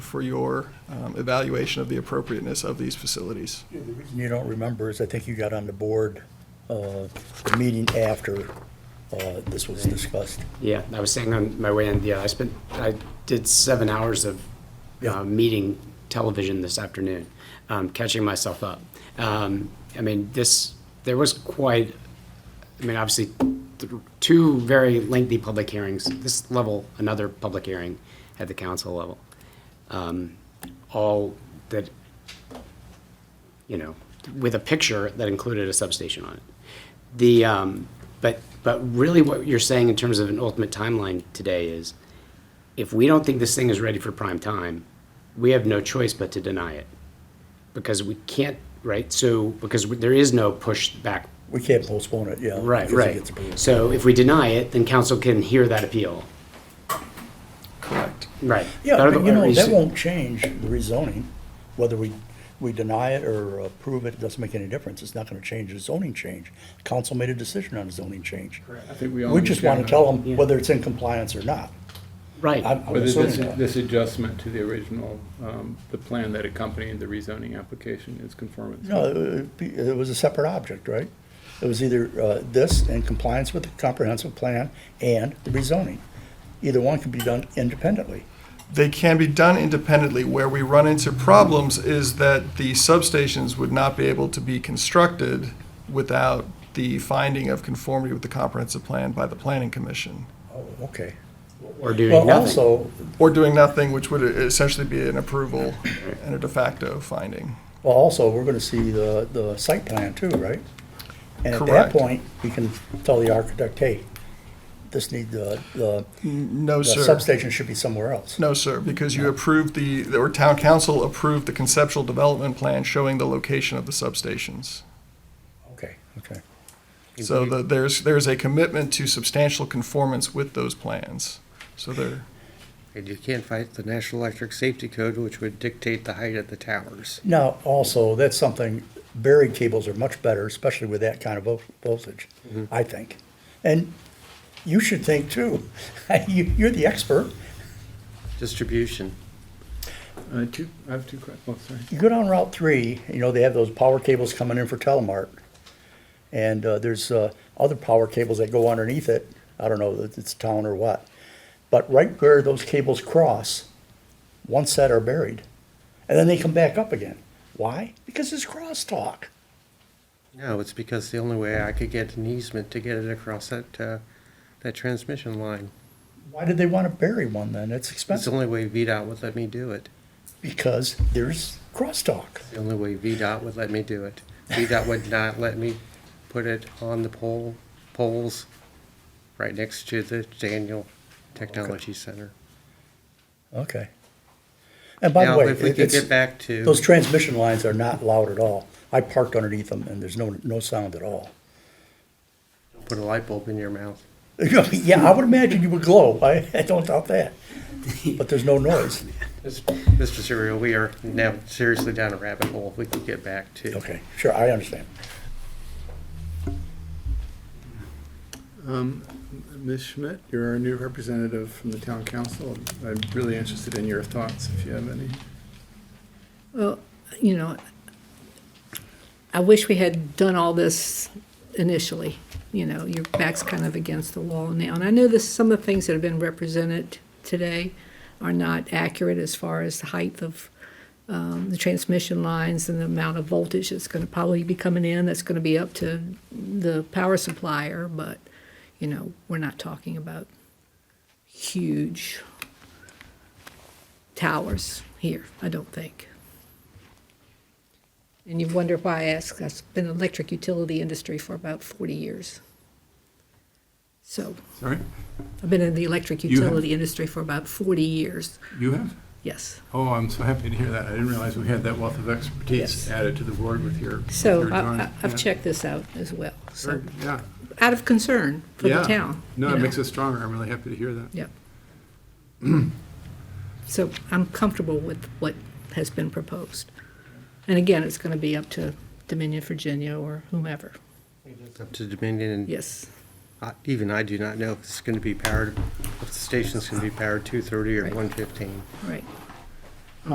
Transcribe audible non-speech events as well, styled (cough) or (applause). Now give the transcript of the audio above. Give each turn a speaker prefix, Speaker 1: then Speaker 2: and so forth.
Speaker 1: for your um, evaluation of the appropriateness of these facilities.
Speaker 2: The reason You don't remember is I think you got on the board, uh, the meeting after, uh, this was discussed.
Speaker 3: Yeah, I was saying on my way in, yeah, I spent, I did seven hours of
Speaker 2: Yeah.
Speaker 3: uh, meeting television this afternoon, um, catching myself up. Um, I mean, this, there was quite, I mean, obviously, th- two very lengthy public hearings, this level, another public hearing at the council level. Um, All that, you know, with a picture that included a substation on it. The, um, but, but really what you're saying in terms of an ultimate timeline today is, if we don't think this thing is ready for prime time, we have no choice but to deny it. Because we can't, right, so, because there is no pushback
Speaker 2: We can't postpone it, yeah.
Speaker 3: Right,
Speaker 2: because it
Speaker 3: right.
Speaker 2: gets approved.
Speaker 3: So if we deny it, then council can hear that appeal.
Speaker 1: Correct.
Speaker 3: Right.
Speaker 2: Yeah,
Speaker 3: That-
Speaker 2: but you know, that
Speaker 3: is-
Speaker 2: won't change the rezoning, whether we, we deny it or approve it, it doesn't make any difference. It's not gonna change the zoning change. Council made a decision on the zoning change.
Speaker 4: I think we all.
Speaker 2: We just wanna
Speaker 4: understand
Speaker 2: tell
Speaker 4: that.
Speaker 2: them whether it's in compliance or not. I'm
Speaker 3: Right,
Speaker 2: I'm
Speaker 4: Whether this,
Speaker 2: assuming that.
Speaker 4: this adjustment to the original, um, the plan that accompanied the rezoning application is conformance.
Speaker 2: No, it would be- it was a separate object, right? It was either uh, this in compliance with the comprehensive plan and the rezoning. Either one could be done independently.
Speaker 1: They can be done independently. Where we run into problems is that the substations would not be able to be constructed without the finding of conformity with the comprehensive plan by the planning commission.
Speaker 2: Oh, okay.
Speaker 3: or doing
Speaker 2: Well,
Speaker 3: nothing.
Speaker 2: also,
Speaker 1: Or doing nothing, which would essentially be an approval and a de facto finding.
Speaker 2: well, also, we're gonna see the, the site plan too, right? And at that
Speaker 1: Correct.
Speaker 2: point, we can tell the architect, hey, this need, the, the
Speaker 1: No,
Speaker 2: the
Speaker 1: sir.
Speaker 2: substation should be somewhere else.
Speaker 1: No, sir, because you approved the, or town council approved the conceptual development plan showing the location of the substations.
Speaker 2: Okay, okay.
Speaker 1: So the- there's, there's a commitment to substantial conformance with those plans. So there,
Speaker 5: And you can't fight the National Electric Safety Code, which would dictate the height of the towers.
Speaker 2: Now, also, that's something, buried cables are much better, especially with that kind of vo- voltage, I think. And you should think too. (laughs) You, you're the expert.
Speaker 5: Distribution.
Speaker 4: Uh, two, I have two questions, oh, sorry.
Speaker 2: You go down Route Three, you know, they have those power cables coming in for Telemart. And, uh, there's, uh, other power cables that go underneath it. I don't know if it's town or what. But right where those cables cross, one set are buried. And then they come back up again. Why? Because it's crosstalk.
Speaker 5: No, it's because the only way I could get an easement to get it across that, uh, that transmission line.
Speaker 2: Why did they want to bury one then? It's
Speaker 5: It's the
Speaker 2: expensive.
Speaker 5: only way VDOT would let me do it.
Speaker 2: because there's crosstalk.
Speaker 5: The only way VDOT would let me do it. VDOT would not let me put it on the pole, poles right next to the Daniel Technology Center.
Speaker 2: Okay. And by the way,
Speaker 5: Now, if we
Speaker 2: it-
Speaker 5: could
Speaker 2: it's-
Speaker 5: get back to.
Speaker 2: those transmission lines are not loud at all. I parked underneath them and there's no, no sound at all. (laughs)
Speaker 5: Put a light bulb in your mouth.
Speaker 2: Yeah, I would imagine you would glow. I, I don't doubt that. But there's no noise.
Speaker 5: Mr. Serial, we are now seriously down a rabbit hole. If we could get back to.
Speaker 2: Okay, sure, I understand.
Speaker 4: Um, Ms. Schmidt, you're our new representative from the town council. I'm really interested in your thoughts, if you have any.
Speaker 6: Well, you know, I wish we had done all this initially. You know, your back's kind of against the wall now. And I know this, some of the things that have been represented today are not accurate as far as the height of um, the transmission lines and the amount of voltage that's going to probably be coming in, that's going to be up to the power supplier. But, you know, we're not talking about huge towers here, I don't think. And you wonder why I ask, I've been in the electric utility industry for about 40 years. So,
Speaker 7: Sorry,
Speaker 6: I've been in the electric
Speaker 7: You have-
Speaker 6: utility industry for about 40 years,
Speaker 7: you have?
Speaker 6: yes.
Speaker 7: Oh, I'm so happy to hear that. I didn't realize we had that wealth of expertise
Speaker 6: Yes.
Speaker 7: added to the board with your. with
Speaker 6: So,
Speaker 7: your
Speaker 6: I-
Speaker 7: drawing.
Speaker 6: I- I've
Speaker 7: Yeah.
Speaker 6: checked this out as well, so,
Speaker 7: Sure, Yeah.
Speaker 6: out of concern for the
Speaker 7: Yeah.
Speaker 6: town.
Speaker 7: No,
Speaker 6: you
Speaker 7: it
Speaker 6: know.
Speaker 7: makes us stronger. I'm really happy to hear that.
Speaker 6: Yep. So I'm comfortable with what has been proposed. And again, it's going to be up to Dominion, Virginia, or whomever,
Speaker 5: It's Up to Dominion and
Speaker 6: yes.
Speaker 5: I- even I do not know if it's going to be powered, if the station's going to be powered 230 or
Speaker 6: Right.
Speaker 5: 115.
Speaker 6: Right.